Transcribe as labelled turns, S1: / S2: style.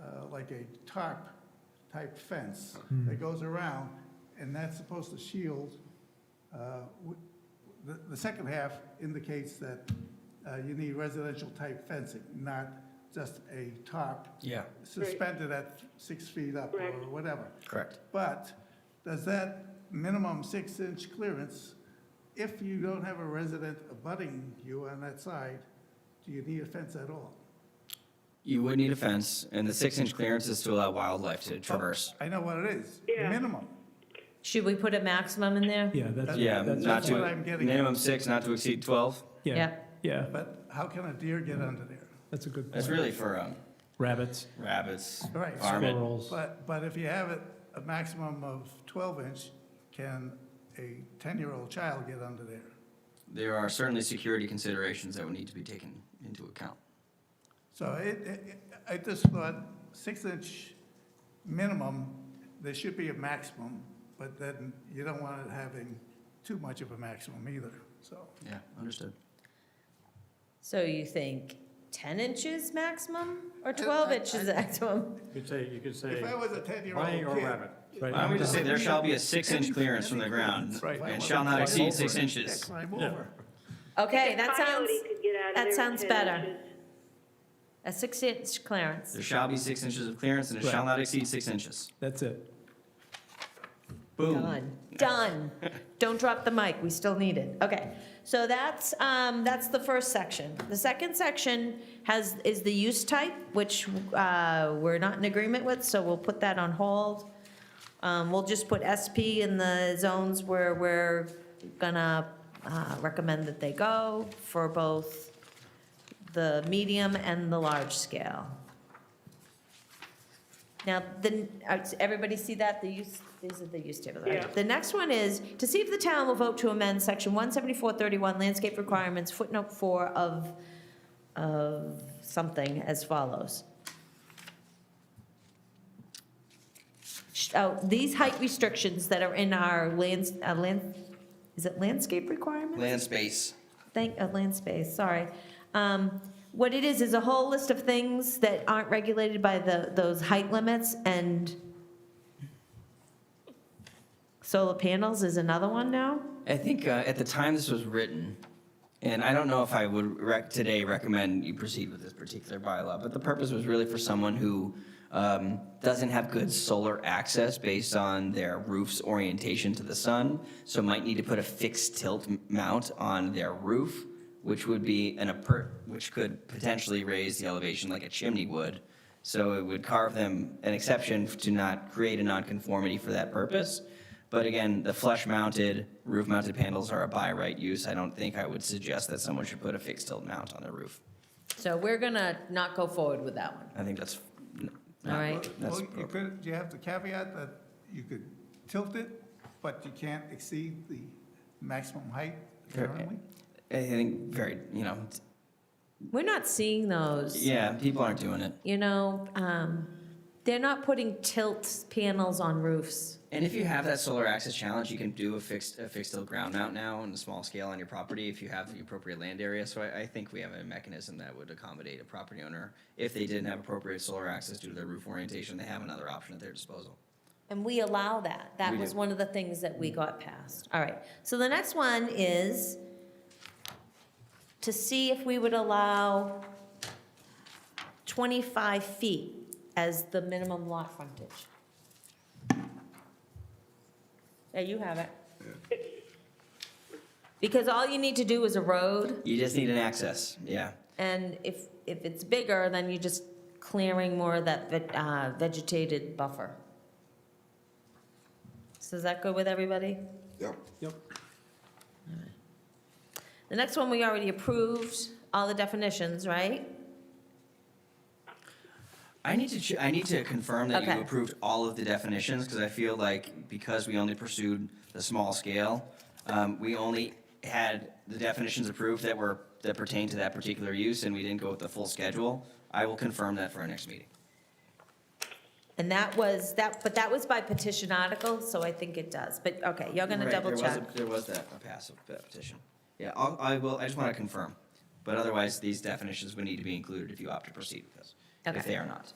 S1: uh, like a tarp-type fence that goes around, and that's supposed to shield. uh, w- The, the second half indicates that uh, you need residential-type fencing, not just a tarp
S2: Yeah,
S1: suspended at six feet up or
S3: Correct.
S1: whatever.
S2: correct.
S1: But does that minimum six-inch clearance, if you don't have a resident abutting you on that side, do you need a fence at all?
S2: You would need a fence, and the six-inch clearance is to allow wildlife to traverse.
S1: I know what it is,
S3: Yeah.
S1: minimum.
S4: Should we put a maximum in there?
S5: Yeah, that's.
S2: Yeah,
S5: that's-
S2: not
S1: what
S2: to,
S1: I'm getting at.
S2: minimum six, not to exceed 12.
S5: Yeah,
S4: Yeah.
S5: yeah,
S1: But how can a deer get under there?
S5: that's a good
S2: That's
S5: point.
S2: really for um,
S5: Rabbits,
S2: rabbits,
S1: Right.
S2: varmint.
S5: squirrels.
S1: But, but if you have it a maximum of 12-inch, can a 10-year-old child get under there?
S2: There are certainly security considerations that would need to be taken into account.
S1: So it, it- I just thought six-inch minimum, there should be a maximum, but then you don't want it having too much of a maximum either, so.
S2: Yeah, understood.
S4: So you think 10 inches maximum or 12 inches maximum?
S6: You could say, you could say.
S1: If I was a
S6: lion or
S1: ten-year-old kid.
S6: rabbit.
S5: right?
S2: Why don't we just say there shall be a six-inch clearance from the ground
S1: Right.
S2: and shall not exceed six inches?
S1: Climb over.
S4: Okay,
S3: A
S4: that sounds,
S3: coyote could get out of
S4: that
S3: there with
S4: sounds
S3: 10
S4: better.
S3: inches.
S4: a six-inch
S2: There
S4: clearance.
S2: shall be six inches of clearance and it shall
S5: Right.
S2: not exceed six inches.
S5: That's it.
S2: Boom.
S4: Done, done. Don't drop the mic, we still need it. Okay, so that's, um, that's the first section. The second section has, is the use type, which uh, we're not in agreement with, so we'll put that on hold. Um, We'll just put SP in the zones where we're gonna uh, recommend that they go for both the medium and the large scale. Now, the, uh, everybody see that, the use, these are the use tables, right?
S3: Yeah.
S4: The next one is, to see if the town will vote to amend section 17431 landscape requirements footnote four of, of something as follows. Sh- Oh, these height restrictions that are in our lands, uh, land, is it landscape requirements?
S2: Land space.
S4: Thank, uh, land space, sorry. Um, What it is, is a whole list of things that aren't regulated by the, those height limits, and solar panels is another one now?
S2: I think uh, at the time this was written, and I don't know if I would rec- today recommend you proceed with this particular bylaw, but the purpose was really for someone who um, doesn't have good solar access based on their roof's orientation to the sun, so might need to put a fixed tilt m- mount on their roof, which would be an appur- which could potentially raise the elevation like a chimney would. So it would carve them an exception to not create a nonconformity for that purpose. But again, the flush-mounted, roof-mounted panels are a by right use. I don't think I would suggest that someone should put a fixed tilt mount on their roof.
S4: So we're gonna not go forward with that one.
S2: I think that's. n-
S4: All
S2: not-
S4: right.
S2: That's
S1: Well, you could, you have the caveat that you could tilt it, but you can't exceed the maximum height currently?
S2: I think very, you know, t-
S4: We're not seeing those.
S2: yeah, people aren't doing it.
S4: You know, um, they're not putting tilt panels on roofs.
S2: And if you have that solar access challenge, you can do a fixed, a fixed tilt ground mount now on a small scale on your property if you have the appropriate land area. So I, I think we have a mechanism that would accommodate a property owner. If they didn't have appropriate solar access due to their roof orientation, they have another option at their disposal.
S4: And we allow that. That
S2: We
S4: was
S2: do. Mm.
S4: one of the things that we got passed. All right, so the next one is to see if we would allow 25 feet as the minimum lot frontage. There, you have it. Because all you need to do is a road,
S2: You just need an access, yeah.
S4: and if, if it's bigger, then you're just clearing more of that ve- uh, vegetated buffer. So is that good with everybody?
S7: Yep.
S5: Yep.
S4: The next one, we already approved all the definitions, right?
S2: I need to ch- I need to confirm that
S4: Okay.
S2: you approved all of the definitions because I feel like because we only pursued the small scale, um, we only had the definitions approved that were that pertain to that particular use, and we didn't go with the full schedule. I will confirm that for our next meeting.
S4: And that was, that, but that was by petition article, so I think it does. But, okay, you're gonna double check.
S2: There was that a passive petition. Yeah, I'll, I will. I just want to confirm, but otherwise these definitions would need to be included if you opt to proceed with this.
S4: Okay.
S2: If they are not,